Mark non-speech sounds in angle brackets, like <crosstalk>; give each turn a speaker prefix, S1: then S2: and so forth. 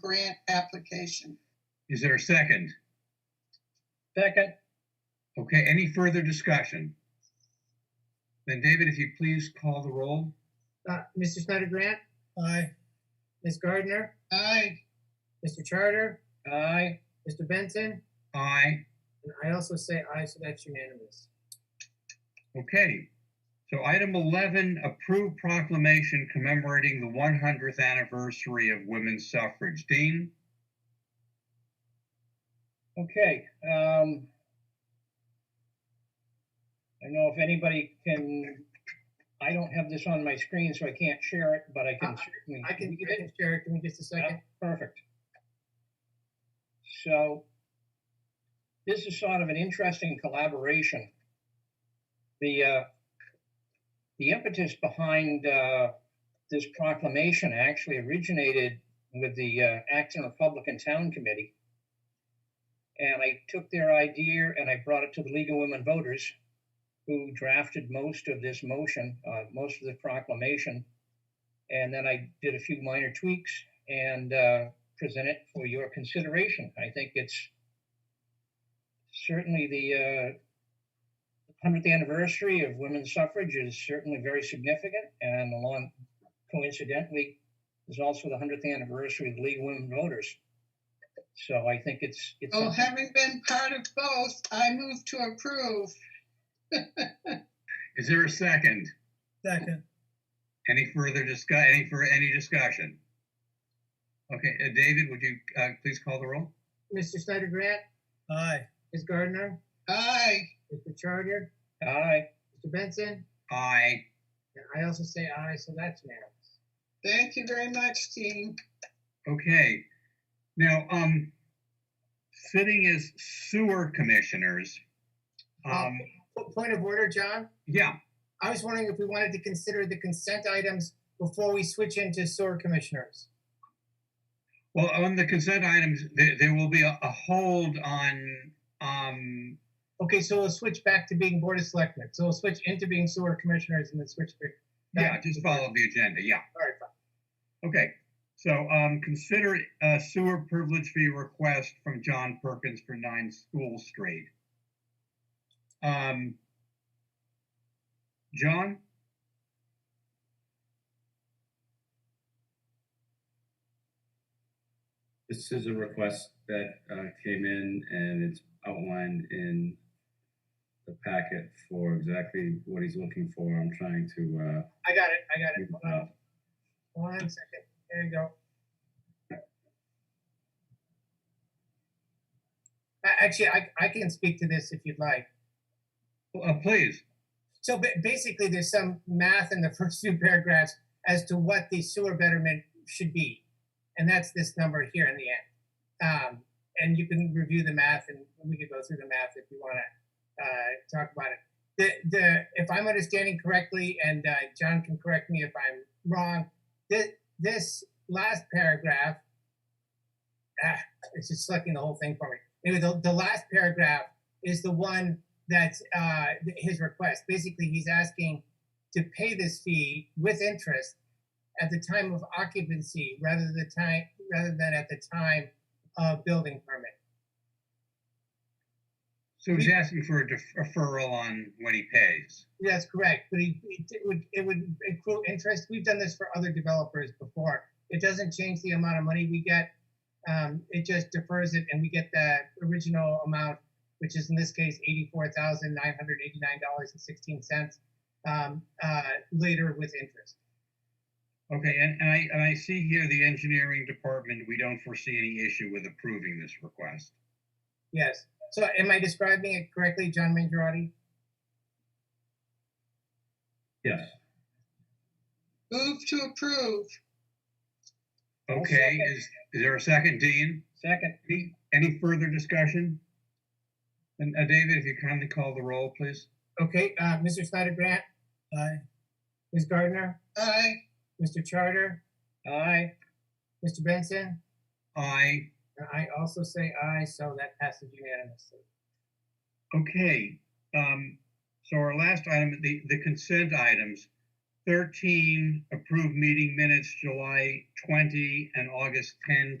S1: grant application.
S2: Is there a second?
S3: Second,
S2: Okay, any further discussion? Then David, if you please call the roll.
S4: Uh, Mr. Snyder Grant? Aye. Ms. Gardner?
S1: Aye,
S4: Mr. Charter?
S3: aye.
S4: Mr. Benson?
S2: Aye.
S4: And I also say aye, so that's unanimous.
S2: Okay. So item 11, approved proclamation commemorating the 100th anniversary of women's suffrage. Dean?
S3: Okay, um, I don't know if anybody can, I don't have this on my screen, so I can't share it, but I can certainly.
S4: Uh, I can,
S3: read
S4: I
S3: it.
S4: can share it, give me just a second.
S3: Perfect. So this is sort of an interesting collaboration. The uh, the impetus behind uh, this proclamation actually originated with the uh, Acton Republican Town Committee. And I took their idea and I brought it to the League of Women Voters, who drafted most of this motion, uh, most of the proclamation. And then I did a few minor tweaks and uh, present it for your consideration. I think it's certainly the uh, 100th anniversary of women's suffrage is certainly very significant, and along coincidentally is also the 100th anniversary of the League of Women Voters. So I think it's it's
S1: well,
S3: something-
S1: having been part of both, I move to approve.
S2: Is there a second?
S4: Second.
S2: Any further discuss, any, for any discussion? Okay, uh, David, would you uh, please call the roll?
S4: Mr. Snyder Grant?
S3: Aye.
S4: Ms. Gardner?
S1: Aye,
S4: Mr. Charter?
S3: aye.
S4: Mr. Benson?
S2: Aye.
S4: And I also say aye, so that's unanimous.
S1: thank you very much, team.
S2: Okay. Now, um, sitting as sewer commissioners, um,
S4: Po- Point of order, John?
S2: yeah,
S4: I was wondering if we wanted to consider the consent items before we switch into sewer commissioners.
S2: well, on the consent items, there, there will be a, a hold on, um,
S4: Okay, so we'll switch back to being Board of Selectmen. So we'll switch into being sewer commissioners and then switch back.
S2: yeah, just follow the agenda, yeah.
S4: All right, fine.
S2: Okay, so, um, consider a sewer privilege fee request from John Perkins for nine School Street. Um, John?
S5: This is a request that uh, came in and it's outlined in the packet for exactly what he's looking for. I'm trying to,
S4: I got it, Um, I got it.
S5: uh,
S4: Hold on. One second. There you go. A- Actually, I, I can speak to this if you'd like.
S2: Uh, please.
S4: So ba- basically, there's some math in the <laughs> first few paragraphs as to what the sewer betterment should be. And that's this number here in the end. Um, and you can review the math and we could go through the math if you want to uh, talk about it. The, the, if I'm understanding correctly, and uh, John can correct me if I'm wrong, this, this last paragraph, ah, it's just selecting the whole thing for me. Anyway, the, the last paragraph is the one that's uh, th- his request. Basically, he's asking to pay this fee with interest at the time of occupancy rather the time rather than at the time of building permit.
S2: So he's asking for a def- deferral on when he pays.
S4: That's correct, but he, it it would it would accrue interest. We've done this for other developers before. It doesn't change the amount of money we get. Um, it just defers it, and we get the original amount, which is in this case eighty-four thousand nine hundred eighty-nine dollars and sixteen cents um, uh, later with interest.
S2: Okay, and, and I, and I see here the engineering department, we don't foresee any issue with approving this request.
S4: Yes. So am I describing it correctly, John Mangiarotti?
S5: yes,
S1: Move to approve.
S3: I'll
S2: Okay,
S3: second.
S2: is, is there a second, Dean?
S3: Second,
S2: Any, any further discussion? And, uh, David, if you kindly call the roll, please.
S4: Okay, uh, Mr. Snyder Grant? Aye. Ms. Gardner?
S1: Aye,
S4: Mr. Charter?
S3: aye.
S4: Mr. Benson?
S2: Aye.
S4: And I also say aye, so that passes unanimously.
S2: Okay, um, so our last item, the, the consent items. Thirteen, approved meeting minutes, July twenty and August 10, 2021.